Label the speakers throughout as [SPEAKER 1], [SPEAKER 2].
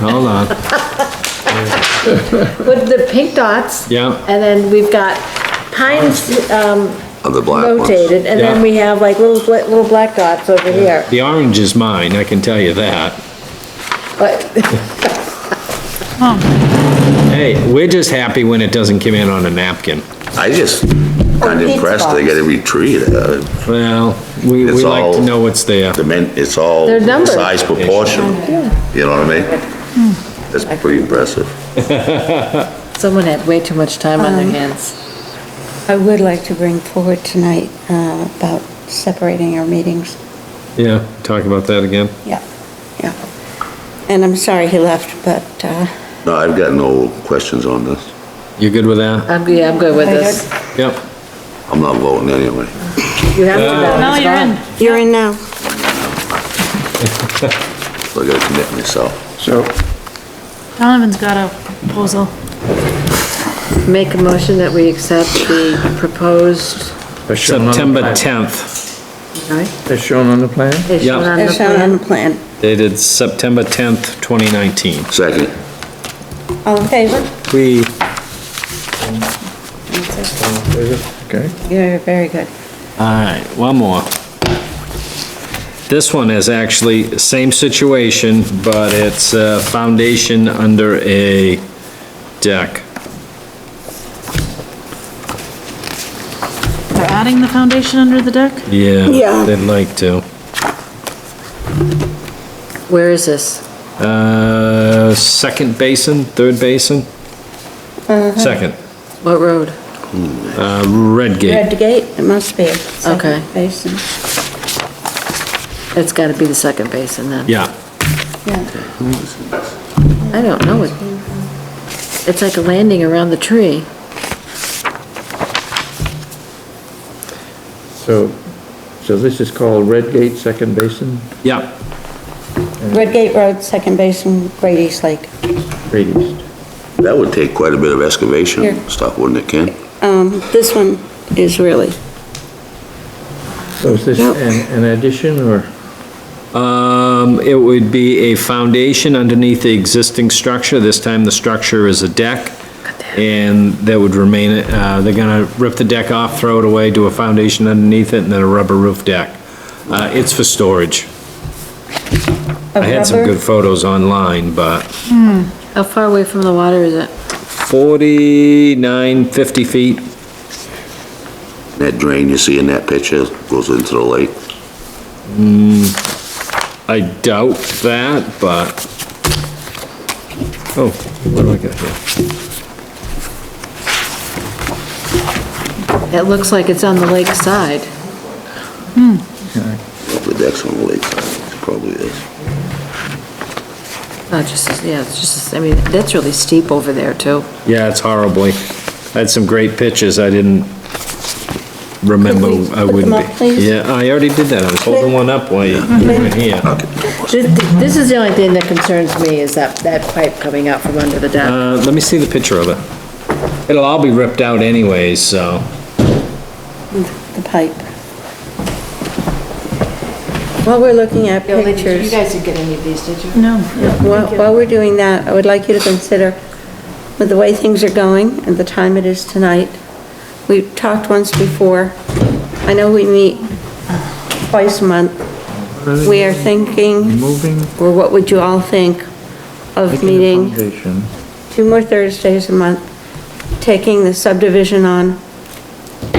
[SPEAKER 1] Hold on.
[SPEAKER 2] with the pink dots.
[SPEAKER 1] Yeah.
[SPEAKER 2] And then we've got pines, um,
[SPEAKER 3] on the black ones.
[SPEAKER 2] rotated, and then
[SPEAKER 1] Yeah.
[SPEAKER 2] we have like little, bla- little black dots over here,
[SPEAKER 1] The orange is mine, I can tell you that.
[SPEAKER 2] but,
[SPEAKER 1] Hey, we're just happy when it doesn't come in on a napkin.
[SPEAKER 3] I just, not
[SPEAKER 2] pizza
[SPEAKER 3] impressed, they got every tree, uh,
[SPEAKER 1] Well, we, we
[SPEAKER 3] It's
[SPEAKER 1] like to
[SPEAKER 3] all-
[SPEAKER 1] know what's there.
[SPEAKER 3] the men, it's all
[SPEAKER 2] They're numbered.
[SPEAKER 3] size proportional, you know what I mean?
[SPEAKER 2] Hmm.
[SPEAKER 3] That's pretty impressive.
[SPEAKER 2] someone had way too much time on their hands.
[SPEAKER 4] I would like to bring forward tonight uh, about separating our meetings.
[SPEAKER 1] Yeah, talk about that again.
[SPEAKER 4] Yeah. Yeah. And I'm sorry he left, but uh,
[SPEAKER 3] No, I've got no questions on this.
[SPEAKER 1] You good with that?
[SPEAKER 2] I'm, yeah, I'm good with
[SPEAKER 4] Are you
[SPEAKER 2] this.
[SPEAKER 1] Yep.
[SPEAKER 3] I'm not voting anyway.
[SPEAKER 2] You have to go.
[SPEAKER 5] No,
[SPEAKER 2] it's
[SPEAKER 5] you're
[SPEAKER 2] fine.
[SPEAKER 5] in.
[SPEAKER 4] you're in now.
[SPEAKER 3] So I gotta commit myself.
[SPEAKER 6] So,
[SPEAKER 5] Donovan's got a proposal.
[SPEAKER 2] Make a motion that we accept the proposed,
[SPEAKER 6] as shown on the
[SPEAKER 1] September
[SPEAKER 6] plan-
[SPEAKER 1] 10th,
[SPEAKER 2] right?
[SPEAKER 6] As shown on the plan?
[SPEAKER 2] It's
[SPEAKER 1] Yeah.
[SPEAKER 2] shown on the
[SPEAKER 4] It's shown on
[SPEAKER 2] plan.
[SPEAKER 4] the plan.
[SPEAKER 1] dated September 10th, 2019.
[SPEAKER 3] Second,
[SPEAKER 4] All in favor?
[SPEAKER 1] We,
[SPEAKER 6] Okay.
[SPEAKER 4] You're very good.
[SPEAKER 1] all right, one more. This one is actually same situation, but it's a foundation under a deck.
[SPEAKER 5] They're adding the foundation under the deck?
[SPEAKER 1] Yeah,
[SPEAKER 4] Yeah.
[SPEAKER 1] they'd like to.
[SPEAKER 2] Where is this?
[SPEAKER 1] Uh, second basin, third basin?
[SPEAKER 4] Uh-huh.
[SPEAKER 1] Second,
[SPEAKER 2] What road?
[SPEAKER 1] uh, Red Gate.
[SPEAKER 4] Red gate, it must be. second
[SPEAKER 2] Okay.
[SPEAKER 4] Basin,
[SPEAKER 2] It's gotta be the second basin then.
[SPEAKER 1] Yeah,
[SPEAKER 4] yeah.
[SPEAKER 2] I don't know it. It's like a landing around the tree.
[SPEAKER 6] So, so this is called Red Gate Second Basin,
[SPEAKER 1] yeah,
[SPEAKER 4] Red gate road, second basin, Great East Lake.
[SPEAKER 6] Great East.
[SPEAKER 3] that would take quite a bit of excavation
[SPEAKER 4] Here.
[SPEAKER 3] and stuff, wouldn't it, Ken?
[SPEAKER 4] Um, This one is really,
[SPEAKER 6] So is this an, an addition or?
[SPEAKER 1] Um, it would be a foundation underneath the existing structure. This time the structure is a deck. And that would remain, uh, they're gonna rip the deck off, throw it away, do a foundation underneath it, and then a rubber roof deck. Uh, it's for storage.
[SPEAKER 4] a
[SPEAKER 1] I had some
[SPEAKER 4] rubber,
[SPEAKER 1] good photos online, but
[SPEAKER 2] How far away from the water is it?
[SPEAKER 1] forty-nine, fifty feet.
[SPEAKER 3] That drain you see in that picture goes into the lake.
[SPEAKER 1] I doubt that, but, oh, what do I got here?
[SPEAKER 2] It looks like it's on the lake side.
[SPEAKER 3] The deck's on the lake, it probably is.
[SPEAKER 2] Oh, just, yeah, it's just, I mean, that's really steep over there too.
[SPEAKER 1] Yeah, it's horribly. I had some great pictures, I didn't remember
[SPEAKER 4] Could we
[SPEAKER 1] I
[SPEAKER 4] put them
[SPEAKER 1] wouldn't
[SPEAKER 4] up, please?
[SPEAKER 1] be. Yeah, I already did that, I was holding one up while you you were here.
[SPEAKER 2] This this is the only thing that concerns me, is that, that pipe coming out from under the deck.
[SPEAKER 1] Uh, let me see the picture of it. It'll all be ripped out anyways, so,
[SPEAKER 4] the pipe. While we're looking at pictures.
[SPEAKER 2] didn't get any of these, did you?
[SPEAKER 5] No.
[SPEAKER 4] While while we're doing that, I would like you to consider, with the way things are going and the time it is tonight, we talked once before, I know we meet twice a month. We are thinking,
[SPEAKER 6] Moving.
[SPEAKER 4] or what would you all think of
[SPEAKER 6] making a
[SPEAKER 4] meeting
[SPEAKER 6] Foundation.
[SPEAKER 4] two more Thursdays a month, taking the subdivision on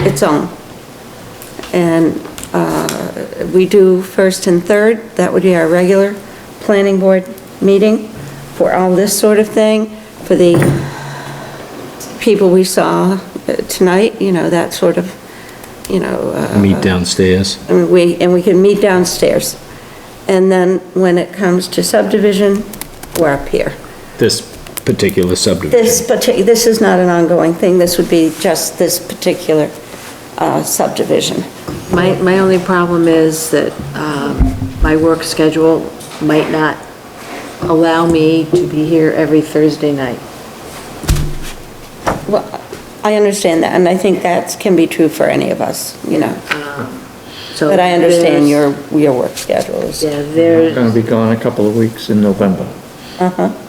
[SPEAKER 4] its own. And uh, we do first and third, that would be our regular planning board meeting for all this sort of thing, for the people we saw uh, tonight, you know, that sort of, you know. uh,
[SPEAKER 1] meet downstairs.
[SPEAKER 4] I mean, we, and we can meet downstairs. And then when it comes to subdivision, we're up here.
[SPEAKER 1] This particular subdivision.
[SPEAKER 4] This parti, this is not an ongoing thing, this would be just this particular uh, subdivision.
[SPEAKER 2] My, my only problem is that um, my work schedule might not allow me to be here every Thursday night.
[SPEAKER 4] Well, I understand that, and I think that can be true for any of us, you know,
[SPEAKER 2] So
[SPEAKER 4] but I understand
[SPEAKER 2] there's-
[SPEAKER 4] your, your work schedules.
[SPEAKER 2] Yeah,
[SPEAKER 6] We're
[SPEAKER 2] there's,
[SPEAKER 6] Gonna be gone a couple of weeks in November.
[SPEAKER 4] Uh-huh.